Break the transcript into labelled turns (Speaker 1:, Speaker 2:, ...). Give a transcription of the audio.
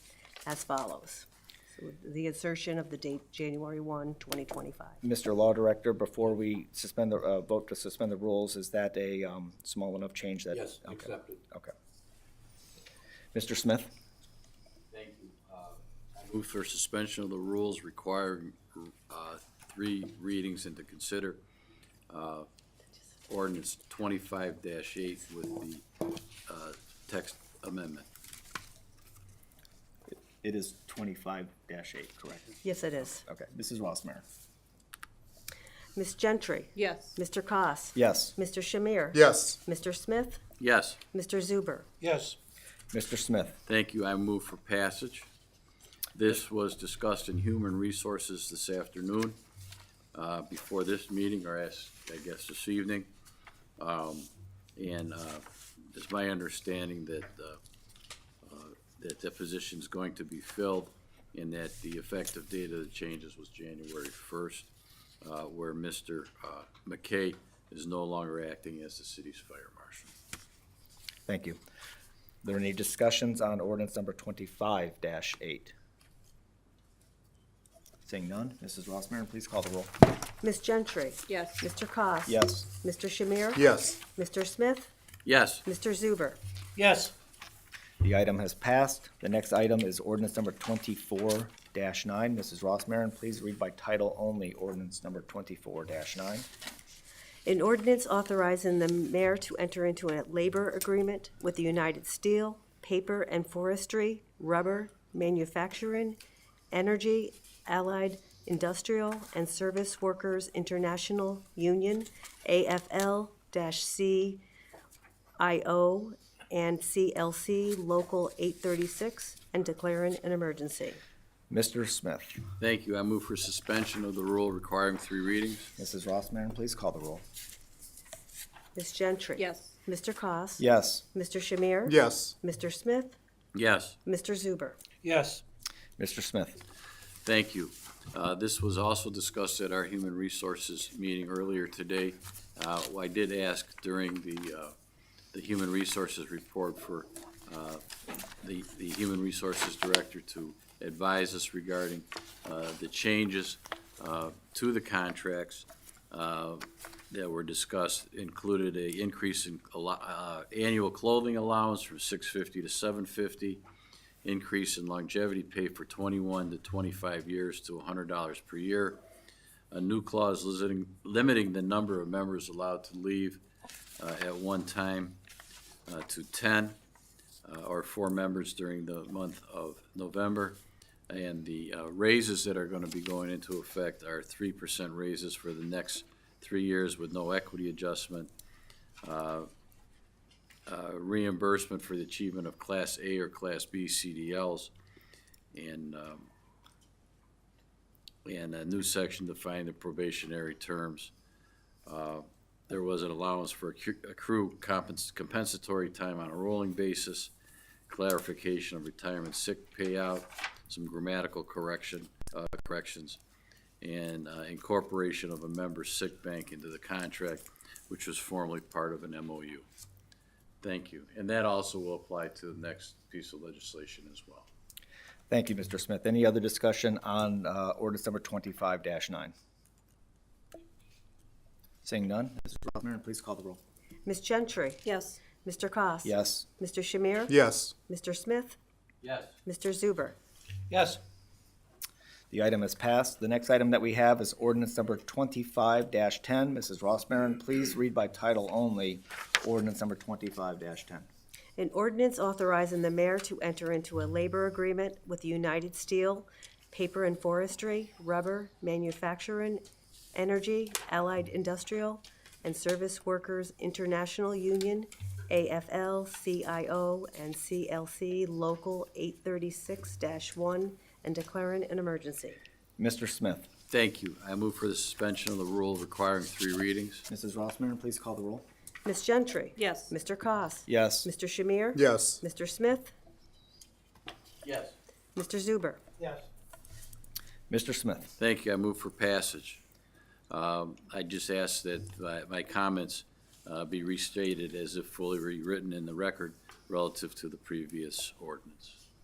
Speaker 1: as follows. So The insertion of the date January 1, 2025.
Speaker 2: Mr. Law Director, before we suspend the, uh, vote to suspend the rules, is that a, um, small enough change that?
Speaker 3: Yes,
Speaker 2: Okay.
Speaker 3: accepted.
Speaker 2: Okay. Mr. Smith?
Speaker 3: Thank you. Uh, I move for suspension of the rules requiring uh, three readings and to consider uh, ordinance twenty-five eight with the uh, text amendment.
Speaker 2: It is twenty-five eight, correct?
Speaker 1: Yes, it is.
Speaker 2: Okay, Mrs. Rossmarin?
Speaker 1: Ms. Gentry?
Speaker 4: Yes.
Speaker 1: Mr. Koss,
Speaker 2: Yes.
Speaker 1: Mr. Shamir?
Speaker 5: Yes.
Speaker 1: Mr. Smith?
Speaker 3: Yes,
Speaker 1: Mr. Zuber?
Speaker 5: Yes.
Speaker 2: Mr. Smith?
Speaker 3: thank you. I move for passage. This was discussed in Human Resources this afternoon, uh, before this meeting, or as, I guess, this evening. Um, And uh, it's my understanding that, uh, uh, that the position's going to be filled and that the effective date of the changes was January first, where Mr. uh, McKay is no longer acting as the city's fire marshal.
Speaker 2: Thank you. There any discussions on ordinance number twenty-five eight? Seeing none, Mrs. Rossmarin, please call the roll.
Speaker 1: Ms. Gentry?
Speaker 4: Yes.
Speaker 1: Mr. Koss,
Speaker 2: Yes.
Speaker 1: Mr. Shamir?
Speaker 5: Yes.
Speaker 1: Mr. Smith?
Speaker 3: Yes,
Speaker 1: Mr. Zuber?
Speaker 5: Yes.
Speaker 2: The item has passed. The next item is ordinance number twenty-four nine. Mrs. Rossmarin, please read by title only, ordinance number twenty-four nine.
Speaker 1: An ordinance authorizing the mayor to enter into a labor agreement with the United Steel, Paper and Forestry, Rubber, Manufacturing, Energy, Allied Industrial and Service Workers International Union, AFL-CIO and CLC Local 836, and declaring an emergency.
Speaker 2: Mr. Smith,
Speaker 3: thank you. I move for suspension of the rule requiring three readings.
Speaker 2: Mrs. Rossmarin, please call the roll.
Speaker 1: Ms. Gentry?
Speaker 4: Yes.
Speaker 1: Mr. Koss,
Speaker 2: Yes.
Speaker 1: Mr. Shamir?
Speaker 5: Yes.
Speaker 1: Mr. Smith?
Speaker 3: Yes.
Speaker 1: Mr. Zuber?
Speaker 5: Yes.
Speaker 2: Mr. Smith,
Speaker 3: Thank you. Uh, This was also discussed at our Human Resources meeting earlier today. Uh, I did ask during the, uh, the Human Resources report for uh, the, the Human Resources Director to advise us regarding uh, the changes uh, to the contracts uh, that were discussed, included a increase in allo- uh, annual clothing allowance from six fifty to seven fifty, increase in longevity pay for 21 to 25 years to $100 per year. A new clause limiting, limiting the number of members allowed to leave uh, at one time uh, to 10 uh, or four members during the month of November. And the uh, raises that are going to be going into effect are 3% raises for the next three years with no equity adjustment uh, reimbursement for the achievement of Class A or Class B CDLs, and, um, and a new section defining the probationary terms. Uh, There was an allowance for accu- accrue compens- compensatory time on a rolling basis, clarification of retirement sick payout, some grammatical correction, uh, corrections, and uh, incorporation of a member's sick bank into the contract, which was formerly part of an MOU. Thank you. And that also will apply to the next piece of legislation as well.
Speaker 2: thank you, Mr. Smith. Any other discussion on uh, ordinance number twenty-five nine? Seeing none, Mrs. Rossmarin, please call the roll.
Speaker 1: Ms. Gentry?
Speaker 4: Yes.
Speaker 1: Mr. Koss,
Speaker 2: Yes.
Speaker 1: Mr. Shamir?
Speaker 5: Yes.
Speaker 1: Mr. Smith?
Speaker 3: Yes.
Speaker 1: Mr. Zuber?
Speaker 5: Yes.
Speaker 2: The item is passed. The next item that we have is ordinance number twenty-five ten. Mrs. Rossmarin, please read by title only, ordinance number twenty-five ten.
Speaker 1: An ordinance authorizing the mayor to enter into a labor agreement with United Steel, Paper and Forestry, Rubber, Manufacturing, Energy, Allied Industrial, and Service Workers International Union, AFL-CIO, and CLC Local 836-1, and declaring an emergency.
Speaker 2: Mr. Smith,
Speaker 3: Thank you. I move for the suspension of the rule requiring three readings.
Speaker 2: Mrs. Rossmarin, please call the roll.
Speaker 1: Ms. Gentry?
Speaker 4: Yes.
Speaker 1: Mr. Koss,
Speaker 2: Yes.
Speaker 1: Mr. Shamir?
Speaker 5: Yes.
Speaker 1: Mr. Smith?
Speaker 3: Yes.
Speaker 1: Mr. Zuber?
Speaker 5: Yes.
Speaker 2: Mr. Smith,
Speaker 3: Thank you. I move for passage. Um, I just ask that my, my comments, uh, be restated as if fully rewritten in the record relative to the previous ordinance.